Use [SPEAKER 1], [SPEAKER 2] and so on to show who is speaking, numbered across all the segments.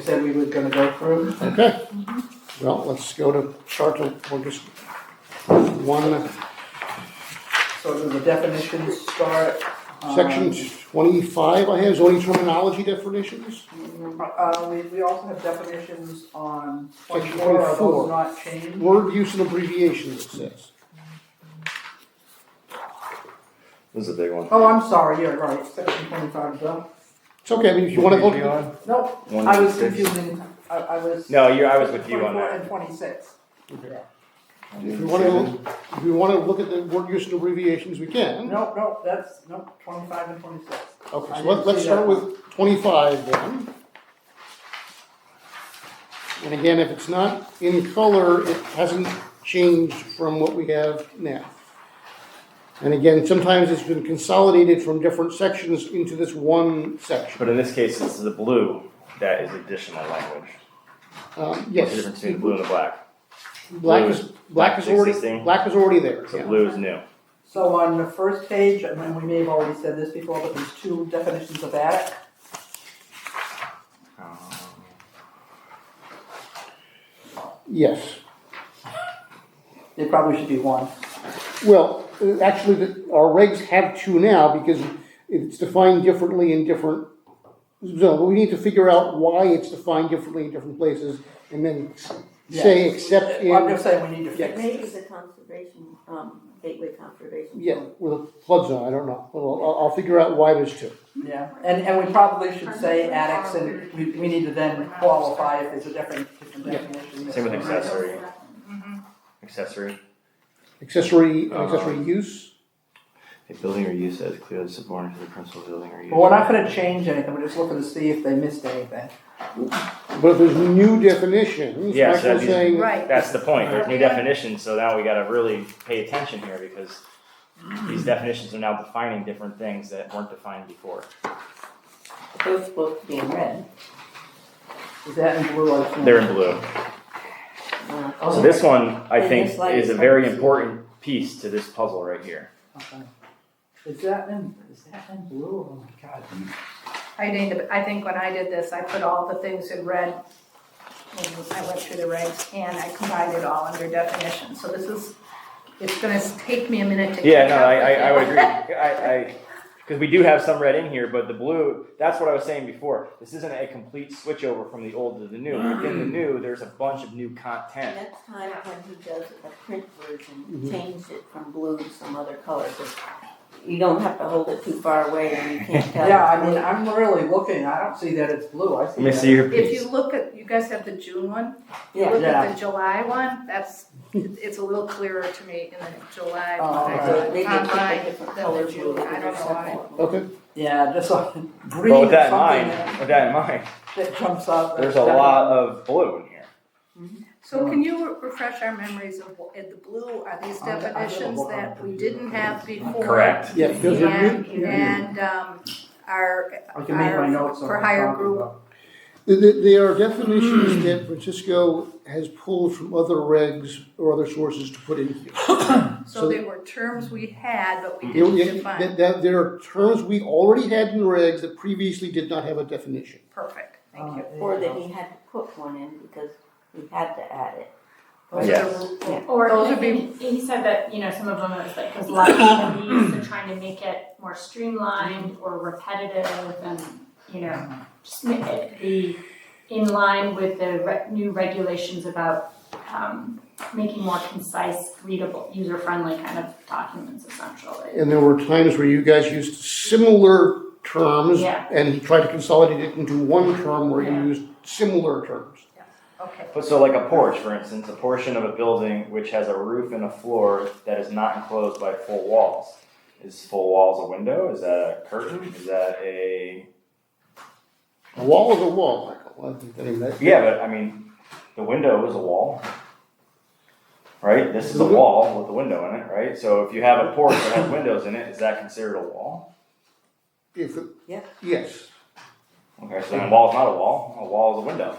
[SPEAKER 1] said we were gonna go through.
[SPEAKER 2] Okay, well, let's go to Charter, we'll just, one,
[SPEAKER 1] So do the definitions start. um,
[SPEAKER 2] section twenty-five I have, zoning terminology definitions.
[SPEAKER 1] Uh, we, we also have definitions on
[SPEAKER 2] Section
[SPEAKER 1] twenty-four, are those
[SPEAKER 2] 24.
[SPEAKER 1] not changed?
[SPEAKER 2] Word use and abbreviations, it says.
[SPEAKER 3] This is a big one.
[SPEAKER 1] Oh, I'm sorry, yeah, right, section twenty-five, done.
[SPEAKER 2] It's okay, I mean, if you wanna
[SPEAKER 4] Moving
[SPEAKER 2] go,
[SPEAKER 4] on.
[SPEAKER 1] Nope,
[SPEAKER 3] One,
[SPEAKER 1] I
[SPEAKER 3] two,
[SPEAKER 1] was
[SPEAKER 3] six.
[SPEAKER 1] confusing, I, I was.
[SPEAKER 3] No, you. I was with you on
[SPEAKER 1] 24
[SPEAKER 3] that.
[SPEAKER 1] and twenty-six.
[SPEAKER 2] if you wanna, if you wanna look at the word use and abbreviations, we can.
[SPEAKER 1] Nope, nope, that's, nope, twenty-five and twenty-six.
[SPEAKER 2] Okay,
[SPEAKER 1] I
[SPEAKER 2] so
[SPEAKER 1] didn't
[SPEAKER 2] let's, let's
[SPEAKER 1] see
[SPEAKER 2] start
[SPEAKER 1] that.
[SPEAKER 2] with twenty-five then. And again, if it's not in color, it hasn't changed from what we have now. And again, sometimes it's been consolidated from different sections into this one section.
[SPEAKER 3] But in this case, it's the blue that is additional language.
[SPEAKER 2] Um,
[SPEAKER 3] What's
[SPEAKER 2] yes,
[SPEAKER 3] the difference between the blue and the black?
[SPEAKER 2] black is, black is already,
[SPEAKER 3] Existing.
[SPEAKER 2] black is already there,
[SPEAKER 3] So
[SPEAKER 2] yeah.
[SPEAKER 3] blue is new.
[SPEAKER 1] So on the first page, and then we may have already said this before, but there's two definitions of attic.
[SPEAKER 2] Yes,
[SPEAKER 1] It probably should be one.
[SPEAKER 2] well, uh, actually, the- our regs have two now because it's defined differently in different zones. We need to figure out why it's defined differently in different places and then say
[SPEAKER 1] Yeah.
[SPEAKER 2] except
[SPEAKER 1] I'm
[SPEAKER 2] in,
[SPEAKER 1] just saying we need to fix it.
[SPEAKER 5] Maybe the conservation, um, gateway conservation.
[SPEAKER 2] yeah, with a flood zone, I don't know. Well, I'll, I'll figure out why there's two.
[SPEAKER 1] Yeah, and, and we probably should say attics and we, we need to then qualify if there's a different, different
[SPEAKER 2] Yeah.
[SPEAKER 1] definition.
[SPEAKER 3] Same with accessory. Mm-hmm. Accessory.
[SPEAKER 2] Accessory, accessory use,
[SPEAKER 3] A building or use that is clearly subordinate to the principal building or use.
[SPEAKER 1] But we're not gonna change anything, we're just looking to see if they missed anything.
[SPEAKER 2] but if there's new definitions,
[SPEAKER 3] Yeah, so
[SPEAKER 2] Michael's
[SPEAKER 3] that'd be-
[SPEAKER 2] saying.
[SPEAKER 5] Right.
[SPEAKER 3] That's the point. There's new definitions, so now we got to really pay attention here because these definitions are now defining different things that weren't defined before.
[SPEAKER 5] Those supposed to be in red.
[SPEAKER 1] Is that in blue or? something?
[SPEAKER 3] They're in blue.
[SPEAKER 5] uh,
[SPEAKER 3] So this one, I
[SPEAKER 5] And
[SPEAKER 3] think,
[SPEAKER 5] this light
[SPEAKER 3] is a
[SPEAKER 5] is
[SPEAKER 3] very
[SPEAKER 5] hard to see.
[SPEAKER 3] important piece to this puzzle right here.
[SPEAKER 1] Okay. Is that in, is that in blue? Oh my god.
[SPEAKER 6] I need to, I think when I did this, I put all the things in red. when I went through the regs and I combined it all under definition, so this is, it's gonna take me a minute to.
[SPEAKER 3] Yeah,
[SPEAKER 6] catch
[SPEAKER 3] no,
[SPEAKER 6] up
[SPEAKER 3] I, I,
[SPEAKER 6] with
[SPEAKER 3] I would
[SPEAKER 6] you.
[SPEAKER 3] agree. I, I, because we do have some red in here, but the blue, that's what I was saying before. This isn't a complete switch over from the old to the new. Within the new, there's a bunch of new content.
[SPEAKER 5] Next time when he does a print version, change it from blue to some other color, but you don't have to hold it too far away and you can't tell.
[SPEAKER 1] Yeah, I mean, I'm really looking, I don't see that it's blue, I see. that-
[SPEAKER 3] your
[SPEAKER 6] If you look at, you guys have the June one, you
[SPEAKER 5] Yeah,
[SPEAKER 6] look
[SPEAKER 1] Yeah.
[SPEAKER 6] at the July one, that's, it's a little clearer to me in the July.
[SPEAKER 1] Oh,
[SPEAKER 6] one.
[SPEAKER 1] alright.
[SPEAKER 5] so they get
[SPEAKER 6] Online
[SPEAKER 5] a different
[SPEAKER 6] than
[SPEAKER 5] color
[SPEAKER 6] the June,
[SPEAKER 5] blue.
[SPEAKER 6] I don't know why.
[SPEAKER 2] Okay,
[SPEAKER 1] Yeah, just like green
[SPEAKER 3] But with
[SPEAKER 1] or
[SPEAKER 3] that in
[SPEAKER 1] something
[SPEAKER 3] mind,
[SPEAKER 1] that
[SPEAKER 3] with that in mind,
[SPEAKER 1] that jumps up.
[SPEAKER 3] there's a lot of blue in here.
[SPEAKER 6] So can you re- refresh our memories of, what- the blue, are
[SPEAKER 5] Oh,
[SPEAKER 6] these
[SPEAKER 1] I- I don't know
[SPEAKER 6] definitions
[SPEAKER 1] what
[SPEAKER 6] that
[SPEAKER 1] I'm-
[SPEAKER 6] we didn't have before?
[SPEAKER 2] yeah, those are
[SPEAKER 6] And,
[SPEAKER 2] new.
[SPEAKER 6] and, um, our,
[SPEAKER 1] I can make my
[SPEAKER 6] our-
[SPEAKER 1] notes on
[SPEAKER 6] for
[SPEAKER 1] what I'm
[SPEAKER 6] higher
[SPEAKER 1] talking
[SPEAKER 6] group.
[SPEAKER 1] about.
[SPEAKER 2] Th- th- There are definitions that Francisco has pulled from other regs or other sources to put in here. So-
[SPEAKER 6] so they were terms we had, but we
[SPEAKER 2] You-
[SPEAKER 6] didn't
[SPEAKER 2] you- that-
[SPEAKER 6] define,
[SPEAKER 2] that- There are terms we already had in regs that previously did not have a definition.
[SPEAKER 6] perfect, thank you.
[SPEAKER 5] Or that he had to put one in because we had to add it.
[SPEAKER 6] Those are
[SPEAKER 3] Yes.
[SPEAKER 6] the-
[SPEAKER 5] Yeah.
[SPEAKER 7] Or
[SPEAKER 6] Those would
[SPEAKER 7] he, he said that, you know, some of them it was like was less than these, they're trying to make it more streamlined or repetitive and, you know, just make it be in line with the re- new regulations about um, making more concise, readable, user-friendly kind of documents essentially.
[SPEAKER 2] And there were times where you guys used similar terms
[SPEAKER 7] Yeah.
[SPEAKER 2] and tried to consolidate it into one term where you
[SPEAKER 7] Yeah.
[SPEAKER 2] used similar terms.
[SPEAKER 6] Okay,
[SPEAKER 3] But so like a porch, for instance, a portion of a building which has a roof and a floor that is not enclosed by full walls. Is full walls a window? Is that a curtain? Is that a
[SPEAKER 2] A wall is a wall, Michael. I think that- I mean, that-
[SPEAKER 3] Yeah, but I mean, the window is a wall. Right? This is
[SPEAKER 5] Mm-hmm.
[SPEAKER 3] a wall with a window in it, right? So if you have a porch that has windows in it, is that considered a wall?
[SPEAKER 2] If, it-
[SPEAKER 5] Yeah.
[SPEAKER 2] yes,
[SPEAKER 3] Okay, so then a wall is not a wall, a wall is a window.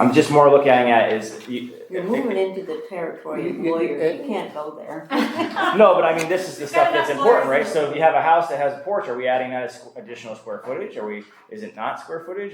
[SPEAKER 3] I'm just more looking at is. you-
[SPEAKER 5] You're moving into the territory of
[SPEAKER 2] You- you-
[SPEAKER 5] lawyers, you can't go there.
[SPEAKER 3] No, but I mean, this is the stuff that's important, right? So if you have a house that has a porch, are we adding that as squ- additional square footage? Are we, is it not square footage?